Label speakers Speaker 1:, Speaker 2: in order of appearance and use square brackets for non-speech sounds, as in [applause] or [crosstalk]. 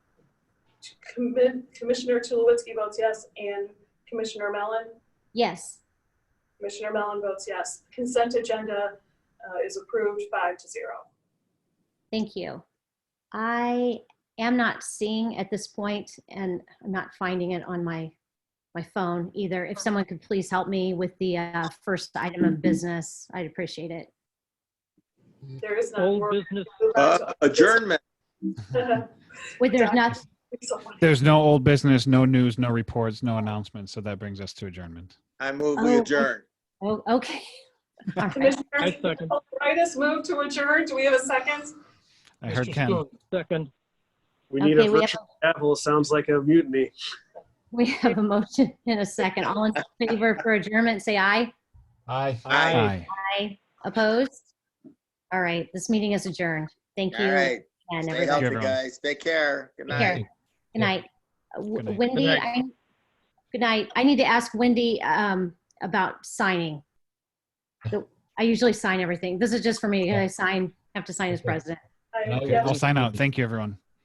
Speaker 1: Commi- Commissioner Tulowitzki votes yes, and Commissioner Mellon?
Speaker 2: Yes.
Speaker 1: Commissioner Mellon votes yes. Consent agenda uh, is approved five to zero.
Speaker 2: Thank you. I am not seeing at this point, and I'm not finding it on my, my phone either. If someone could please help me with the uh, first item of business, I'd appreciate it.
Speaker 1: There is none.
Speaker 3: Old
Speaker 1: We're-
Speaker 3: business,
Speaker 1: we're back to-
Speaker 4: Uh, Adjournment.
Speaker 2: Wait, there's not,
Speaker 1: Someone-
Speaker 5: There's no old business, no news, no reports, no announcements. So that brings us to adjournment.
Speaker 4: I move
Speaker 2: Oh,
Speaker 4: we
Speaker 2: okay.
Speaker 4: adjourn.
Speaker 2: oh, okay. All right.
Speaker 3: I
Speaker 1: [laughs] Commissioner
Speaker 3: second.
Speaker 1: Kulturitis moved to adjourn. Do we have a second?
Speaker 5: I heard
Speaker 3: Mr.
Speaker 5: Ken.
Speaker 3: Stone, Second.
Speaker 6: We need
Speaker 2: Okay,
Speaker 6: a
Speaker 2: we have,
Speaker 6: virtual gavel. Sounds like a mutiny.
Speaker 2: we have a motion in a second. All in favor for adjournment, say aye.
Speaker 7: Aye.
Speaker 4: Aye.
Speaker 2: Aye. Opposed? All right, this meeting is adjourned. Thank you.
Speaker 4: All right.
Speaker 2: again,
Speaker 4: Stay
Speaker 2: everybody.
Speaker 4: healthy,
Speaker 5: everyone.
Speaker 4: guys. Take care. Good
Speaker 2: Take
Speaker 4: night.
Speaker 2: care. Good night. Uh,
Speaker 5: Good
Speaker 2: W-
Speaker 5: night.
Speaker 2: Wendy,
Speaker 3: Good night.
Speaker 2: I, good night. I need to ask Wendy um, about
Speaker 5: [laughs]
Speaker 2: signing. The- I usually sign everything. This is just for me. I sign, have to sign as
Speaker 7: Okay.
Speaker 2: president.
Speaker 1: I-
Speaker 7: Okay.
Speaker 1: yeah.
Speaker 5: I'll sign out. Thank you, everyone.